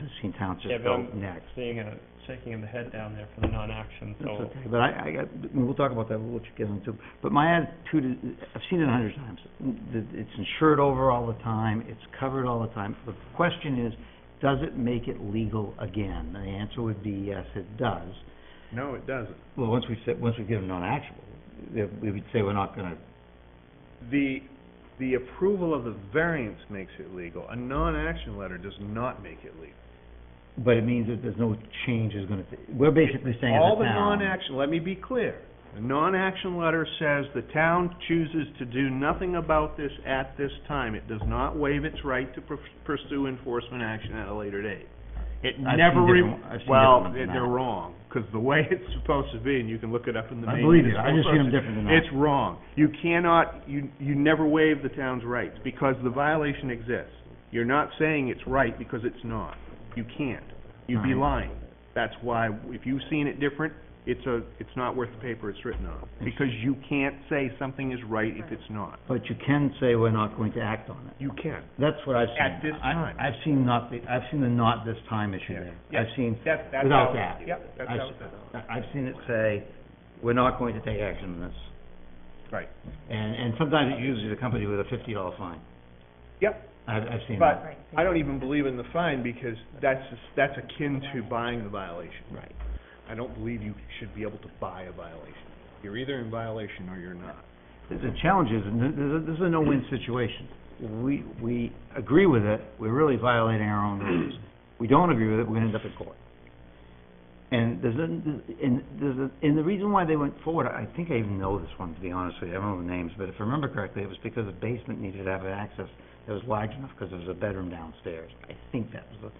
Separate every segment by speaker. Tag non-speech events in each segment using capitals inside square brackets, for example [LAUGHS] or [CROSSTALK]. Speaker 1: Hastings
Speaker 2: Yeah,
Speaker 1: Township
Speaker 2: but
Speaker 1: goes
Speaker 2: I'm
Speaker 1: next.
Speaker 2: Seeing a, shaking of the head down there for the non-action,
Speaker 1: That's
Speaker 2: so,
Speaker 1: okay, but I, I, got- we'll talk about that, we'll let you get into, but my attitude is, I've seen it a hundred times. Th- It's insured over all the time, it's covered all the time. The question is, does it make it legal again? And the answer would be yes, it does.
Speaker 3: No, it doesn't.
Speaker 1: Well, once we said, once we give them non-actionable, eh, we would say we're not gonna,
Speaker 3: The, the approval of the variance makes it legal. A non-action letter does not make it legal.
Speaker 1: but it means that there's no change is gonna, we're basically saying as
Speaker 3: All
Speaker 1: a
Speaker 3: the
Speaker 1: town.
Speaker 3: non-action, let me be clear. The non-action letter says the town chooses to do nothing about this at this time. It does not waive its right to pur- pursue enforcement action at a later date. It
Speaker 1: I've
Speaker 3: never,
Speaker 1: seen
Speaker 3: re-
Speaker 1: different- I've seen different
Speaker 3: well,
Speaker 1: ones
Speaker 3: they-
Speaker 1: than
Speaker 3: they're
Speaker 1: that.
Speaker 3: wrong, because the way it's supposed to be, and you can look it up in the
Speaker 1: I
Speaker 3: main.
Speaker 1: believe you. I
Speaker 3: municipal
Speaker 1: just seen 'em
Speaker 3: process,
Speaker 1: different than that.
Speaker 3: It's wrong. You cannot, you, you never waive the town's rights, because the violation exists. You're not saying it's right, because it's not. You can't. You'd be
Speaker 1: Alright.
Speaker 3: lying. That's why, if you've seen it different, it's a, it's not worth the paper it's written on, because you can't say something is right if it's not.
Speaker 1: But you can say we're not going to act on it.
Speaker 3: You can.
Speaker 1: That's what I've seen.
Speaker 3: At this
Speaker 1: I-
Speaker 3: time.
Speaker 1: I've seen not, the- I've seen the not this time issue
Speaker 3: Yeah.
Speaker 1: there.
Speaker 3: Yeah.
Speaker 1: I've seen,
Speaker 3: That's, that's
Speaker 1: without
Speaker 3: how-
Speaker 1: that.
Speaker 3: Yep, that's
Speaker 1: I've
Speaker 3: how
Speaker 1: s-
Speaker 3: it's done.
Speaker 1: I- I've seen it say, we're not going to take action on this.
Speaker 3: Right.
Speaker 1: And, and sometimes it's usually the company with a fifty dollar fine.
Speaker 3: Yep.
Speaker 1: I've, I've seen that.
Speaker 3: But I don't even believe in the fine, because that's, that's akin to buying the violation.
Speaker 1: Right.
Speaker 3: I don't believe you should be able to buy a violation. You're either in violation or you're not.
Speaker 1: The- The challenge is, and th- th- this is a no-win situation. We, we agree with it, we're really violating our own rules. We don't agree with it, we're gonna end up in court. And there's, a- and there's, a- and the reason why they went forward, I I think I even know this one, to be honest with you, I don't know the names, but if I remember correctly, it was because the basement needed to have an access that was large enough, because there was a bedroom downstairs. I think that was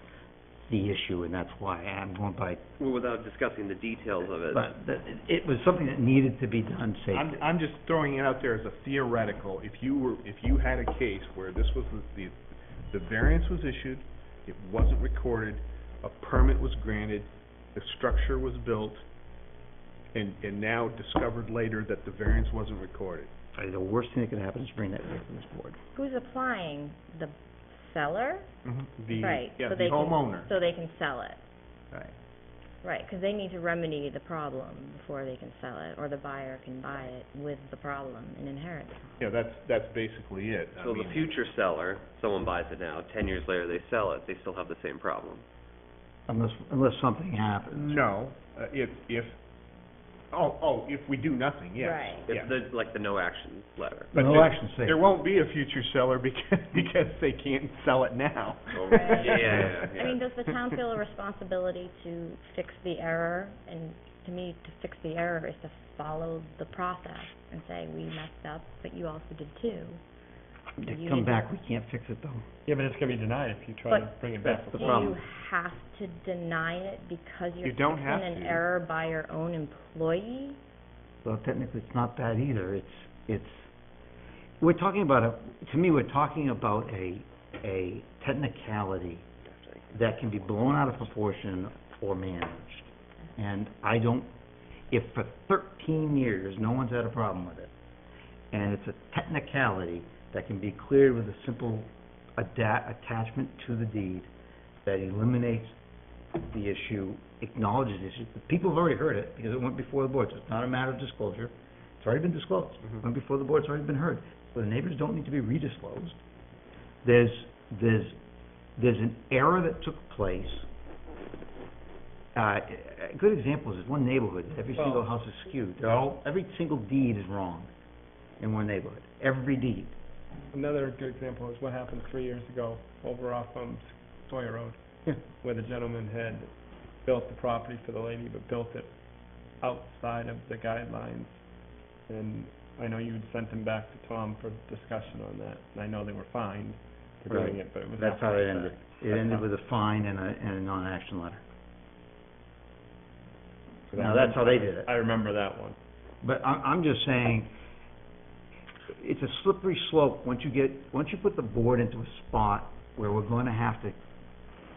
Speaker 1: the, the issue, and that's why I'm going by,
Speaker 4: Well, without discussing the details of it.
Speaker 1: but that- it was something that needed to be done
Speaker 3: I'm,
Speaker 1: safely.
Speaker 3: I'm just throwing it out there as a theoretical, if you were, if you had a case where this was the, the the variance was issued, it wasn't recorded, a permit was granted, the structure was built, and, and now discovered later that the variance wasn't recorded.
Speaker 1: The worst thing that could happen is bring that back to this board.
Speaker 5: Who's applying? The seller?
Speaker 3: The,
Speaker 5: Right,
Speaker 3: yeah,
Speaker 5: so
Speaker 3: the
Speaker 5: they can-
Speaker 3: homeowner.
Speaker 5: So they can sell it.
Speaker 1: Right.
Speaker 5: Right, because they need to remedy the problem before they can sell it, or the buyer can buy it with the problem and inherit it.
Speaker 3: Yeah, that's, that's basically it. I
Speaker 4: So the
Speaker 3: mean,
Speaker 4: future seller, someone buys it now, ten years later they sell it, they still have the same problem.
Speaker 1: Unless, unless something happens.
Speaker 3: No, uh, if, if, oh, oh, if we do nothing, yes.
Speaker 5: Right.
Speaker 3: yeah.
Speaker 4: It's the, like the no action letter.
Speaker 3: But
Speaker 1: No
Speaker 3: there-
Speaker 1: action statement.
Speaker 3: There won't be a future seller [LAUGHS] because, because they can't sell it now.
Speaker 4: Oh,
Speaker 5: Right.
Speaker 4: Yeah, yeah,
Speaker 3: [LAUGHS]
Speaker 4: yeah.
Speaker 5: I mean, does the town feel a responsibility to fix the error? And to me, to fix the error is to follow the process and say, we messed up, but you also did too.
Speaker 1: They
Speaker 5: You
Speaker 1: come
Speaker 5: need-
Speaker 1: back, we can't fix it though.
Speaker 2: yeah, but it's gonna be denied if you try to
Speaker 5: But-
Speaker 2: bring it back.
Speaker 1: The
Speaker 5: Do
Speaker 1: problem.
Speaker 5: you have to deny it because you're
Speaker 3: You don't
Speaker 5: fixing
Speaker 3: have
Speaker 5: an
Speaker 3: to.
Speaker 5: error by your own employee?
Speaker 1: Well, technically, it's not that either. It's, it's, we're talking about a, to me, we're talking about a, a technicality that can be blown out of proportion or managed. And I don't, if for thirteen years, no one's had a problem with it, and it's a technicality that can be cleared with a simple ada- attachment to the deed that eliminates the issue, acknowledges the issue, the people have already heard it, because it went before the board, so it's not a matter of disclosure, it's already been disclosed,
Speaker 3: Mhm.
Speaker 1: went before the board, it's already been heard, so the neighbors don't need to be redisclosed. There's, there's, there's an error that took place. Uh, a good example is this one neighborhood, every
Speaker 2: Well-
Speaker 1: single house is skewed, they're all, every single deed is wrong in one neighborhood, every deed.
Speaker 2: Another good example is what happened three years ago over off, um, Sawyer Road.
Speaker 1: Yeah.
Speaker 2: Where the gentleman had built the property for the lady, but built it outside of the guidelines. And I know you had sent them back to Tom for discussion on that, and I know they were fined for doing
Speaker 1: Right.
Speaker 2: it, but it was.
Speaker 1: That's how it ended. It
Speaker 2: That's
Speaker 1: ended
Speaker 2: how-
Speaker 1: with a fine and a, and a non-action letter.
Speaker 2: So that
Speaker 1: Now,
Speaker 2: was-
Speaker 1: that's how they did it.
Speaker 2: I remember that one.
Speaker 1: But I'm, I'm just saying, it's a slippery slope, once you get, once you put the board into a spot where we're gonna have to,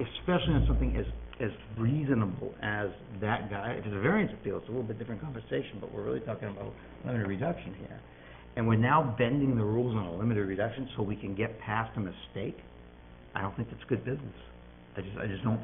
Speaker 1: especially on something as, as reasonable as that guy, if it's a variance appeal, it's a little bit different conversation, but we're really talking about limited reduction here. And we're now bending the rules on a limited reduction so we can get past a mistake, I don't think that's good business. I just, I just don't